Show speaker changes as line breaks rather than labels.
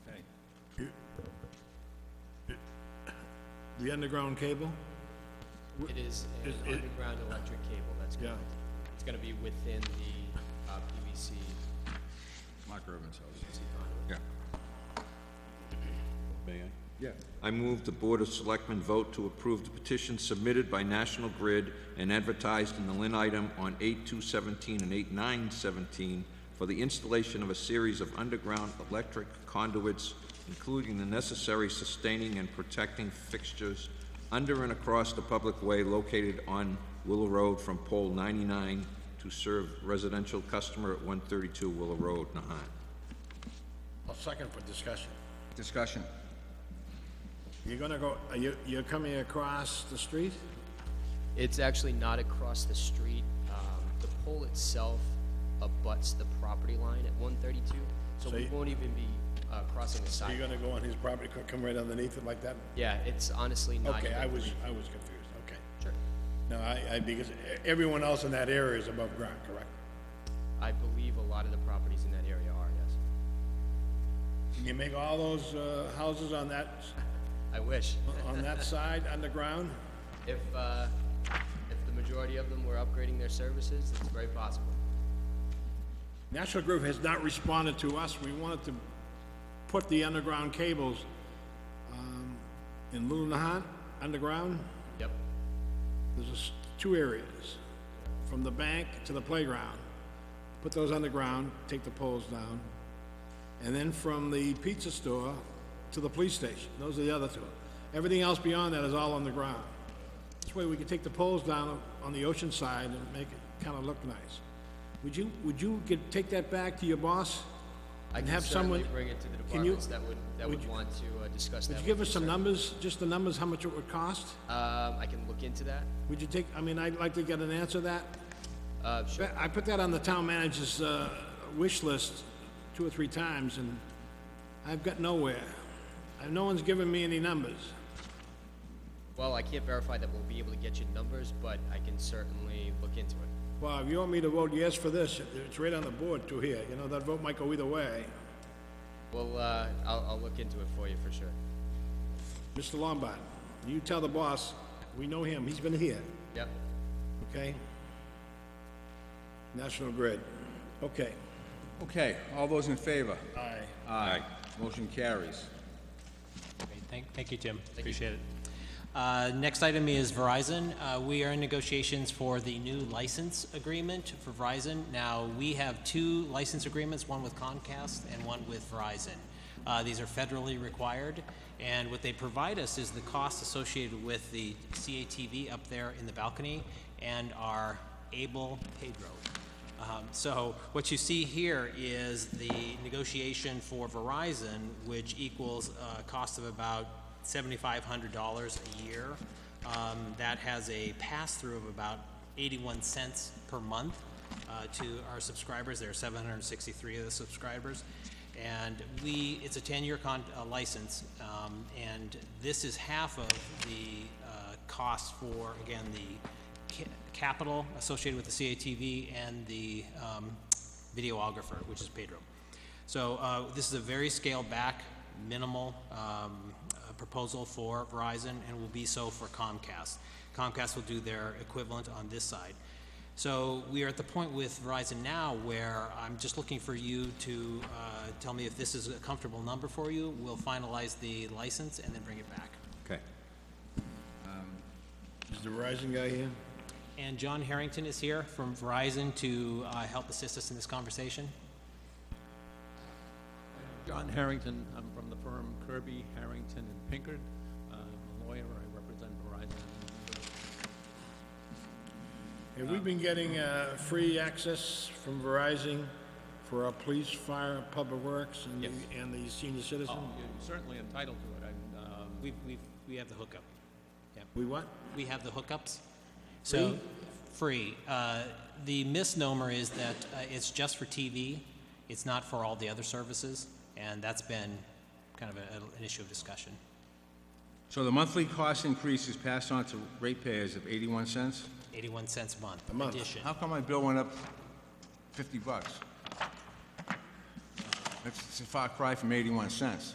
The underground cable?
It is an
Is it-
underground electric cable that's going, it's going to be within the uh, PVC
Mark Urban's house.
conduit.
Yeah. May I? Yeah.
I move the Board of Selectmen vote to approve the petition submitted by National Grid and advertised in the Lynn item on 8/2/17 and 8/9/17 for the installation of a series of underground electric conduits, including the necessary sustaining and protecting fixtures under and across the public way located on Willow Road from pole 99 to serve residential customer at 132 Willow Road, Nahat.
I'll second for discussion.
Discussion.
You're gonna go, are you, you're coming across the street?
It's actually not across the street. Um, The pole itself abutts the property line at 132, so we
you-
won't even be uh, crossing the
You're
sidewalk.
gonna go on his property, co- come right underneath it like that?
Yeah, it's honestly not
Okay,
even
I was,
green.
I was confused, okay.
Sure.
No, I, I, because e- everyone else in that area is above ground, correct?
I believe a lot of the properties in that area are, yes.
Can you make all those, uh, houses on that,
I wish.
on that side underground?
If, uh, if the majority of them were upgrading their services, it's very possible.
National Grid has not responded to us. We wanted to put the underground cables, um, in Lunahan, underground.
Yep,
There's just two areas, from the bank to the playground. Put those underground, take the poles down. And then from the pizza store to the police station, those are the other two. Everything else beyond that is all on the ground. This way we can take the poles down on the ocean side and make it kinda look nice. Would you, would you get, take that back to your boss?
I
and
can
have someone?
certainly bring it to the
Can you-
departments that would, that
would
would
you-
want to uh, discuss that.
Would you
with
give us some
sir.
numbers, just the numbers, how much it would cost?
Um, I can look into that.
Would you take, I mean, I'd like to get an answer to that.
Uh, sure,
I put that on the town manager's uh, wish list two or three times, and I've got nowhere. And no one's given me any numbers.
well, I can't verify that we'll be able to get you numbers, but I can certainly look into it.
Well, if you want me to vote yes for this, it's right on the board too here, you know, that vote might go either way.
Well, uh, I'll, I'll look into it for you for sure.
Mr. Lombard, you tell the boss, we know him, he's been here,
Yep,
okay? National Grid, okay.
Okay, all those in favor?
Aye.
Aye. Motion carries.
Great. Thank, thank you, Jim. Appreciate it. Uh, Next item is Verizon. Uh, We are in negotiations for the new license agreement for Verizon. Now, we have two license agreements, one with Comcast and one with Verizon. Uh, These are federally required, and what they provide us is the cost associated with the CATV up there in the balcony and our Able Pedro. Um, So what you see here is the negotiation for Verizon, which equals a cost of about $7,500 a year. Um, That has a pass-through of about 81 cents per month uh, to our subscribers. There are 763 of the subscribers. And we, it's a 10-year con, uh, license, um, and this is half of the uh, cost for, again, the ca- capital associated with the CATV and the um, videographer, which is Pedro. So uh, this is a very scaled-back, minimal um, uh, proposal for Verizon, and will be so for Comcast. Comcast will do their equivalent on this side. So we are at the point with Verizon now where I'm just looking for you to uh, tell me if this is a comfortable number for you. We'll finalize the license and then bring it back.
Okay.
Is the Verizon guy here?
And John Harrington is here from Verizon to uh, help assist us in this conversation.
John Harrington, I'm from the firm Kirby, Harrington and Pinkard. Uh, I'm a lawyer, I represent Verizon.
Have we been getting uh, free access from Verizon for our police, fire, public works, and the- and the senior citizen?
You're certainly entitled to it, I'm, um,
We've, we've, we have the hookup.
We what?
We have the hookups. So, free. Uh, The misnomer is that uh, it's just for TV. It's not for all the other services, and that's been kind of a- an issue of discussion.
So the monthly cost increase is passed on to ratepayers of 81 cents?
81 cents a month.
A month.
Addition.
How come my bill went up 50 bucks? It's it's a far cry from 81 cents.